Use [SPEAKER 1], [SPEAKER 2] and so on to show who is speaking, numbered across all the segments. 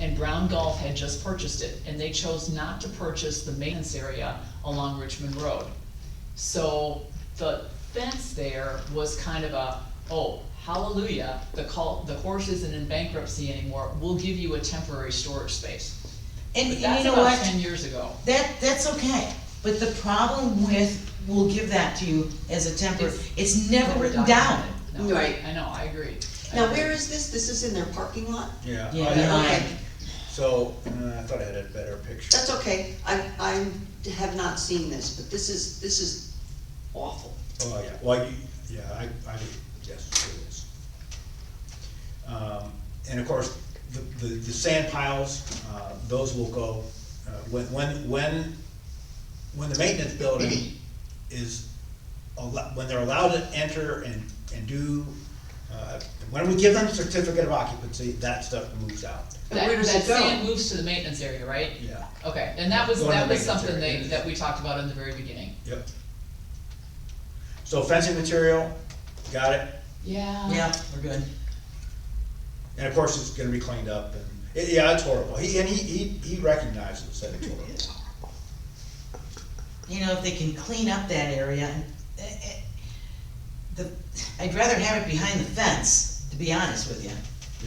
[SPEAKER 1] and Brown Golf had just purchased it, and they chose not to purchase the maintenance area along Richmond Road. So the fence there was kind of a, oh, hallelujah, the call, the horse isn't in bankruptcy anymore, we'll give you a temporary storage space.
[SPEAKER 2] And
[SPEAKER 1] But
[SPEAKER 2] and you
[SPEAKER 1] that's
[SPEAKER 2] know
[SPEAKER 1] about
[SPEAKER 2] what?
[SPEAKER 1] ten years ago.
[SPEAKER 2] That, that's okay, but the problem with, we'll give that to you as a temper,
[SPEAKER 1] It's-
[SPEAKER 2] it's never written down.
[SPEAKER 1] documented. No,
[SPEAKER 3] Right.
[SPEAKER 1] I know, I agree. I
[SPEAKER 3] Now,
[SPEAKER 1] agree.
[SPEAKER 3] where is this? This is in their parking lot?
[SPEAKER 4] Oh, Yeah.
[SPEAKER 2] Yeah,
[SPEAKER 4] I-
[SPEAKER 2] yeah.
[SPEAKER 3] Okay,
[SPEAKER 4] So, uh, I thought I had a better picture.
[SPEAKER 3] that's okay. I, I have not seen this, but this is, this is awful.
[SPEAKER 4] Oh, yeah, well, you, yeah, I, I, yes, it is. Um, and of course, the, the, the sand piles, uh, those will go, uh, when, when, when, when the maintenance building is allo- when they're allowed to enter and, and do, uh, when we give them certificate of occupancy, that stuff moves out,
[SPEAKER 3] And where
[SPEAKER 1] That,
[SPEAKER 3] does
[SPEAKER 1] that
[SPEAKER 3] it go?
[SPEAKER 1] sand moves to the maintenance area, right?
[SPEAKER 4] yeah,
[SPEAKER 1] Okay, and that was,
[SPEAKER 4] Going to
[SPEAKER 1] that was
[SPEAKER 4] maintenance
[SPEAKER 1] something
[SPEAKER 4] area.
[SPEAKER 1] they, that we talked about in the very beginning.
[SPEAKER 4] yep. So fencing material, got it,
[SPEAKER 1] Yeah.
[SPEAKER 2] Yeah, we're good.
[SPEAKER 4] And of course, it's gonna be cleaned up and, it- yeah, it's horrible. He, and he, he, he recognizes that it's horrible.
[SPEAKER 2] You know, if they can clean up that area, and, eh, eh, the, I'd rather have it behind the fence, to be honest with you.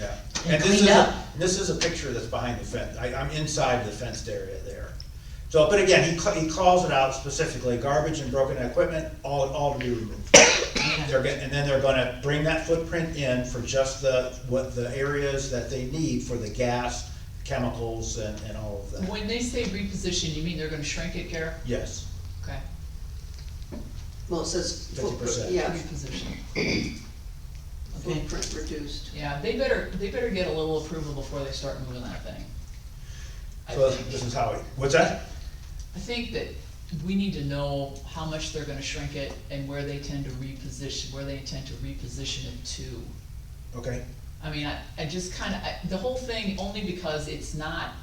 [SPEAKER 4] Yeah.
[SPEAKER 2] And
[SPEAKER 4] this
[SPEAKER 2] cleaned
[SPEAKER 4] is a-
[SPEAKER 2] up.
[SPEAKER 4] This is a picture that's behind the fence. I, I'm inside the fenced area there. So, but again, he, cl- he calls it out specifically, garbage and broken equipment, all, all to be removed. They're gonna, and then they're gonna bring that footprint in for just the, what the areas that they need for the gas, chemicals and, and all of that.
[SPEAKER 1] When they say reposition, you mean they're gonna shrink it, Garrett?
[SPEAKER 4] Yes,
[SPEAKER 1] Okay,
[SPEAKER 3] Well, it says footprint,
[SPEAKER 4] 50%.
[SPEAKER 3] yeah,
[SPEAKER 1] reposition.
[SPEAKER 2] Okay.
[SPEAKER 3] footprint reduced.
[SPEAKER 1] Yeah, they better, they better get a little approval before they start moving that thing. I
[SPEAKER 4] so
[SPEAKER 1] think.
[SPEAKER 4] this is how, he- what's that?
[SPEAKER 1] I think that we need to know how much they're gonna shrink it and where they tend to reposition, where they intend to reposition it to.
[SPEAKER 4] Okay,
[SPEAKER 1] I mean, I, I just kinda, I, the whole thing, only because it's not.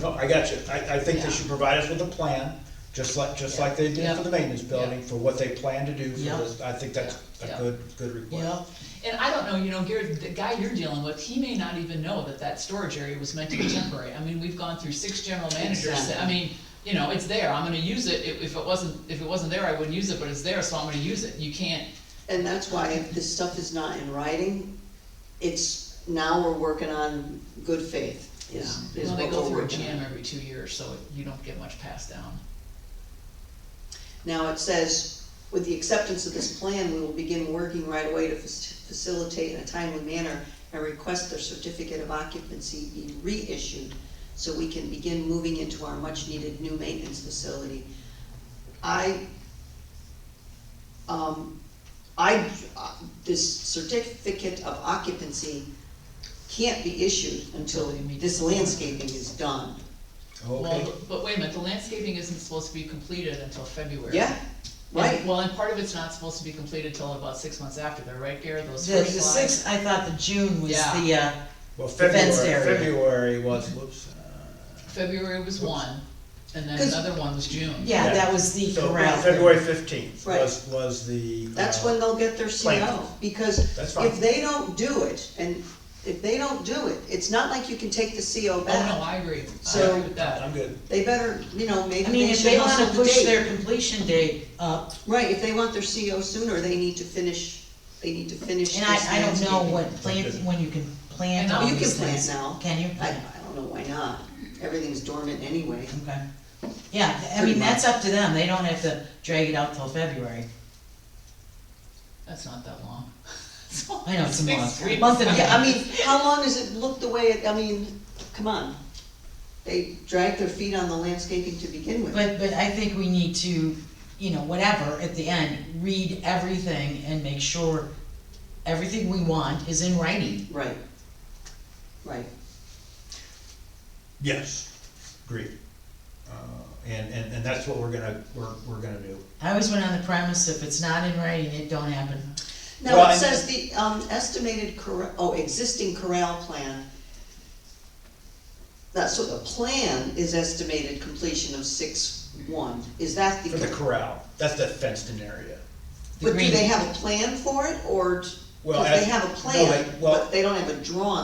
[SPEAKER 4] No, I got you. I, I think
[SPEAKER 1] Yeah.
[SPEAKER 4] they should provide us with a plan, just like, just like they did for the maintenance building, for what they plan to do for
[SPEAKER 2] Yeah.
[SPEAKER 4] this. I think that's a
[SPEAKER 1] Yeah.
[SPEAKER 4] good, good request.
[SPEAKER 2] Yep,
[SPEAKER 1] And I don't know, you know, Gary, the guy you're dealing with, he may not even know that that storage area was meant to be temporary. I mean, we've gone through six general managers, that- I
[SPEAKER 3] Exactly.
[SPEAKER 1] mean, you know, it's there, I'm gonna use it, if, if it wasn't, if it wasn't there, I wouldn't use it, but it's there, so I'm gonna use it, you can't.
[SPEAKER 3] And that's why if this stuff is not in writing, it's, now we're working on good faith is, is
[SPEAKER 1] Well, they
[SPEAKER 3] what
[SPEAKER 1] go
[SPEAKER 3] we're
[SPEAKER 1] through a
[SPEAKER 3] working on.
[SPEAKER 1] jam every two years, so you don't get much passed down.
[SPEAKER 3] Now, it says, with the acceptance of this plan, we will begin working right away to fac- facilitate in a timely manner and request their certificate of occupancy be reissued so we can begin moving into our much-needed new maintenance facility. I, um, I, uh, this certificate of occupancy can't be issued until
[SPEAKER 1] Until you meet-
[SPEAKER 3] this landscaping is done.
[SPEAKER 4] Okay,
[SPEAKER 1] Well, but wait a minute, the landscaping isn't supposed to be completed until February.
[SPEAKER 3] Yeah, right?
[SPEAKER 1] And- Well, and part of it's not supposed to be completed till about six months after, they're right, Gary,
[SPEAKER 2] the,
[SPEAKER 1] those
[SPEAKER 2] the
[SPEAKER 1] first slides.
[SPEAKER 2] sixth, I thought the June was
[SPEAKER 1] Yeah.
[SPEAKER 2] the, uh,
[SPEAKER 4] well, February,
[SPEAKER 2] fenced area.
[SPEAKER 4] February was, whoops. uh,
[SPEAKER 1] February was one, and then
[SPEAKER 2] 'Cause-
[SPEAKER 1] another one was June.
[SPEAKER 2] yeah, that was the
[SPEAKER 4] So
[SPEAKER 2] corral.
[SPEAKER 4] February fifteenth
[SPEAKER 3] Right.
[SPEAKER 4] was, was the.
[SPEAKER 3] That's
[SPEAKER 4] uh,
[SPEAKER 3] when they'll get their
[SPEAKER 4] plan.
[SPEAKER 3] CO, because
[SPEAKER 4] That's fine.
[SPEAKER 3] if they don't do it, and if they don't do it, it's not like you can take the CO
[SPEAKER 1] Oh, no,
[SPEAKER 3] back.
[SPEAKER 1] I agree, I
[SPEAKER 3] So-
[SPEAKER 1] agree with that.
[SPEAKER 4] I'm good.
[SPEAKER 3] They better, you know, maybe
[SPEAKER 2] I mean,
[SPEAKER 3] they
[SPEAKER 2] if they
[SPEAKER 3] should also
[SPEAKER 2] wanna
[SPEAKER 3] the
[SPEAKER 2] push
[SPEAKER 3] date.
[SPEAKER 2] their completion date up,
[SPEAKER 3] Right, if they want their CO sooner, they need to finish, they need to finish
[SPEAKER 2] and
[SPEAKER 3] this
[SPEAKER 2] I, I don't know
[SPEAKER 3] landscaping.
[SPEAKER 2] what plant, when you can plant
[SPEAKER 1] And
[SPEAKER 2] all
[SPEAKER 1] you
[SPEAKER 2] these
[SPEAKER 3] can plant
[SPEAKER 2] things.
[SPEAKER 3] now.
[SPEAKER 2] Can you?
[SPEAKER 3] I, I don't know why not, everything's dormant anyway.
[SPEAKER 2] Okay. Yeah, I
[SPEAKER 3] Pretty
[SPEAKER 2] mean, that's up to them, they don't have to drag it out till February.
[SPEAKER 1] That's not that long.
[SPEAKER 2] I know, it's a
[SPEAKER 1] Six
[SPEAKER 2] month,
[SPEAKER 1] weeks.
[SPEAKER 2] month and a
[SPEAKER 3] Yeah, I
[SPEAKER 2] half.
[SPEAKER 3] mean, how long does it look the way it, I mean, come on. They dragged their feet on the landscaping to begin with.
[SPEAKER 2] But, but I think we need to, you know, whatever, at the end, read everything and make sure everything we want is in writing.
[SPEAKER 3] Right. Right.
[SPEAKER 4] Yes, agreed. Uh, and, and, and that's what we're gonna, we're, we're gonna do.
[SPEAKER 2] I always went on the premise, if it's not in writing, it don't happen.
[SPEAKER 3] Now,
[SPEAKER 4] Well,
[SPEAKER 3] it
[SPEAKER 4] I-
[SPEAKER 3] says the um, estimated corral, oh, existing corral plan. That's, so the plan is estimated completion of six one, is that
[SPEAKER 4] For the
[SPEAKER 3] the,
[SPEAKER 4] corral, that's the fenced-in area.
[SPEAKER 2] The
[SPEAKER 3] but do
[SPEAKER 2] green-
[SPEAKER 3] they have a plan for it, or?
[SPEAKER 4] Well,
[SPEAKER 3] Because
[SPEAKER 4] as-
[SPEAKER 3] they have a
[SPEAKER 4] no,
[SPEAKER 3] plan,
[SPEAKER 4] they- well-
[SPEAKER 3] but they don't have a drawing